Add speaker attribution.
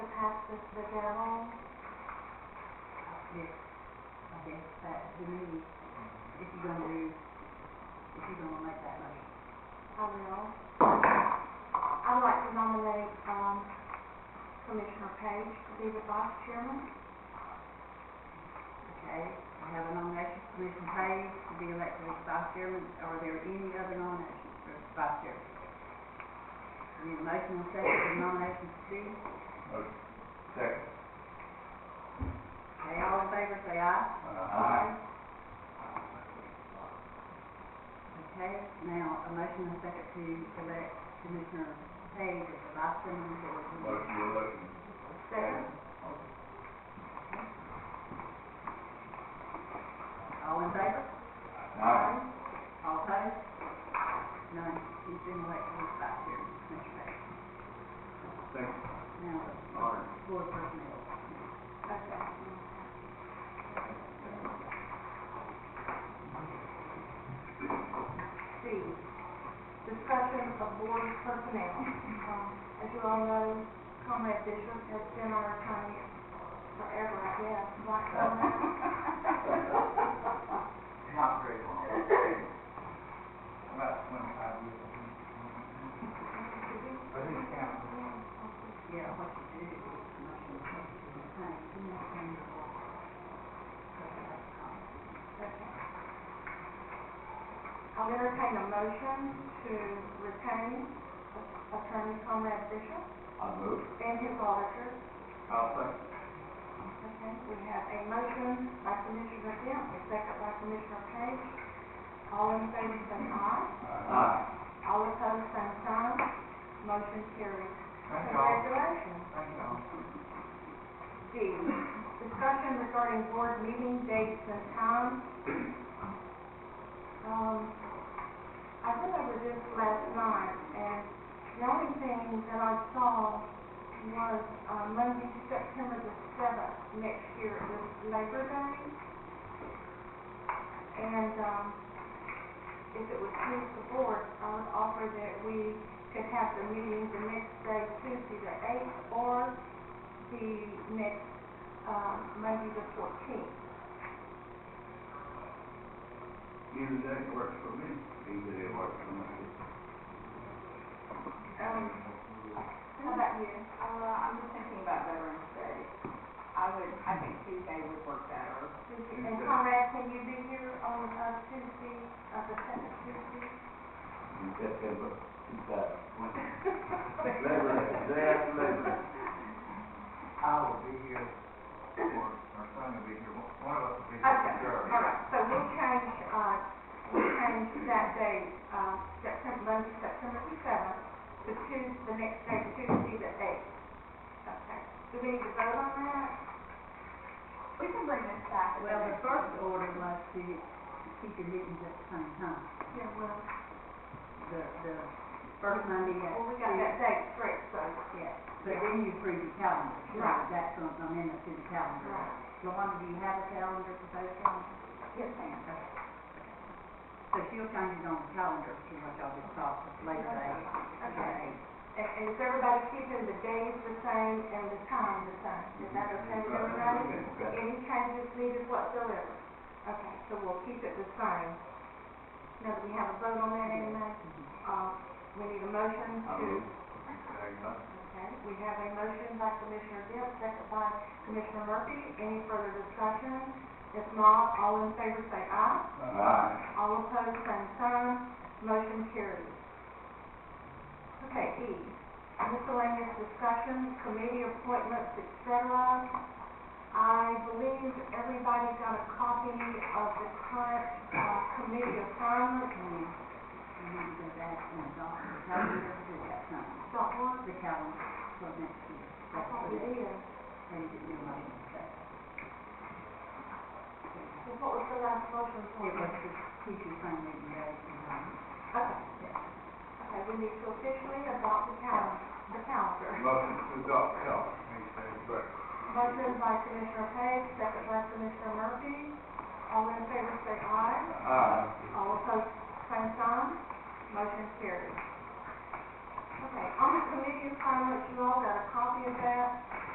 Speaker 1: Mr. McGowan?
Speaker 2: Yes, I guess that, the meeting, if you're gonna do, if you're gonna make that motion.
Speaker 1: I will. I'd like to nominate, um, Commissioner Page to be the vice chairman.
Speaker 2: Okay, I have a nomination for Commissioner Page to be elected as vice chairman. Are there any other nominations for vice chairman? We Need a motion and second for nominations to be,
Speaker 3: Motion. Second.
Speaker 2: okay, all in favor, say aye.
Speaker 3: Uh, Aye.
Speaker 2: Okay, now, a motion and second to elect Commissioner Page as the vice chairman of the board.
Speaker 3: Motion to elect.
Speaker 1: Second.
Speaker 2: All in favor?
Speaker 3: Aye.
Speaker 2: All opposed? None. He's been elected as vice chairman, Mr. Page.
Speaker 3: Second.
Speaker 2: Now,
Speaker 3: Honor.
Speaker 2: board personnel.
Speaker 1: Okay. C, discussion of board personnel. Um, As you all know, Comrade Bishop has been our attorney forever, I guess, right, Comrade?
Speaker 3: Not very long. About twenty-five years. I think it's counting.
Speaker 2: Yeah, what you do is motion to retain, do not change the law.
Speaker 1: I'll entertain a motion to retain Attorney Comrade Bishop
Speaker 3: I move.
Speaker 1: and his auditors
Speaker 3: I'll second.
Speaker 1: Okay, we have a motion by Commissioner Dent, a second by Commissioner Page. All in favor, say aye.
Speaker 3: Aye.
Speaker 1: All opposed, same sign. Motion carries.
Speaker 3: Thank y'all.
Speaker 1: Congratulations.
Speaker 3: Thank y'all.
Speaker 1: D, discussion regarding board meeting dates and times. Um, I went over this last night, and the only thing that I saw was uh, Monday, September the seventh, next year, it was Labor Day. And, um, if it would please the board, I would offer that we could have the meeting the next day, Tuesday the eighth, or the next, um, Monday the fourteenth.
Speaker 3: Either day works for me. Either day works for me.
Speaker 1: Um, how about you?
Speaker 4: Uh, I'm just thinking about Veterans Day. I would, I think Tuesday would work better.
Speaker 1: Tuesday, and Conrad, can you be here on, uh, Tuesday, uh, the second Tuesday?
Speaker 3: In September, two thousand twenty. Labor, day after Labor Day.
Speaker 5: I will be here, or our son will be here, one one of us will be here.
Speaker 1: Okay,
Speaker 5: Sure.
Speaker 1: all right, so we'll change, uh, we'll change that day, uh, September, Monday, September the seventh, to Tuesday, the next day, Tuesday the eighth. Okay, do we need to vote on that?
Speaker 4: We can bring this back. at
Speaker 2: Well, the
Speaker 4: next
Speaker 2: first
Speaker 4: meeting.
Speaker 2: order was to keep your meetings at the same time.
Speaker 1: Yeah, well,
Speaker 2: The, the first Monday at.
Speaker 1: well, we got that date straight, so,
Speaker 2: Yeah, but then you approve the calendar. so
Speaker 1: Right.
Speaker 2: That's going to amend it to the calendar.
Speaker 1: right.
Speaker 2: Lawanda, do you have a calendar for those calendars?
Speaker 4: Yes, ma'am.
Speaker 2: Okay. So she'll change it on the calendar, see what y'all just talked later today.
Speaker 1: Okay. And, and is everybody keeping the days the same and the time the same? Is that okay with everybody? Any changes needed whatsoever? Okay, so we'll keep it the same. Now, do we have a vote on that, Amy? Uh, we need a motion
Speaker 3: I
Speaker 1: to.
Speaker 3: move.
Speaker 1: Okay, we have a motion by Commissioner Gill, second by Commissioner Murphy. Any further discussion? If not, all in favor say aye.
Speaker 3: Aye.
Speaker 1: All opposed, same sign, motion carries. Okay, E, miscellaneous discussions, committee appointments, et cetera. I believe everybody got a copy of the current, uh, committee assignment,
Speaker 2: And we need to go back and adopt the calendar to that time,
Speaker 1: got one,
Speaker 2: the calendar for next year.
Speaker 1: I thought we did.
Speaker 2: Ready to do motion second.
Speaker 1: Well, What was the last motion for?
Speaker 2: It was to keep your same meeting days and times.
Speaker 1: Okay, okay, we need to officially adopt the calendar, the calendar.
Speaker 3: Motion to adopt, yeah.
Speaker 1: Motion by Commissioner Page, second by Commissioner Murphy. All in favor, say aye.
Speaker 3: Aye.
Speaker 1: All opposed, same sign. Motion carries. Okay, on the committee assignments, you all got a copy of that.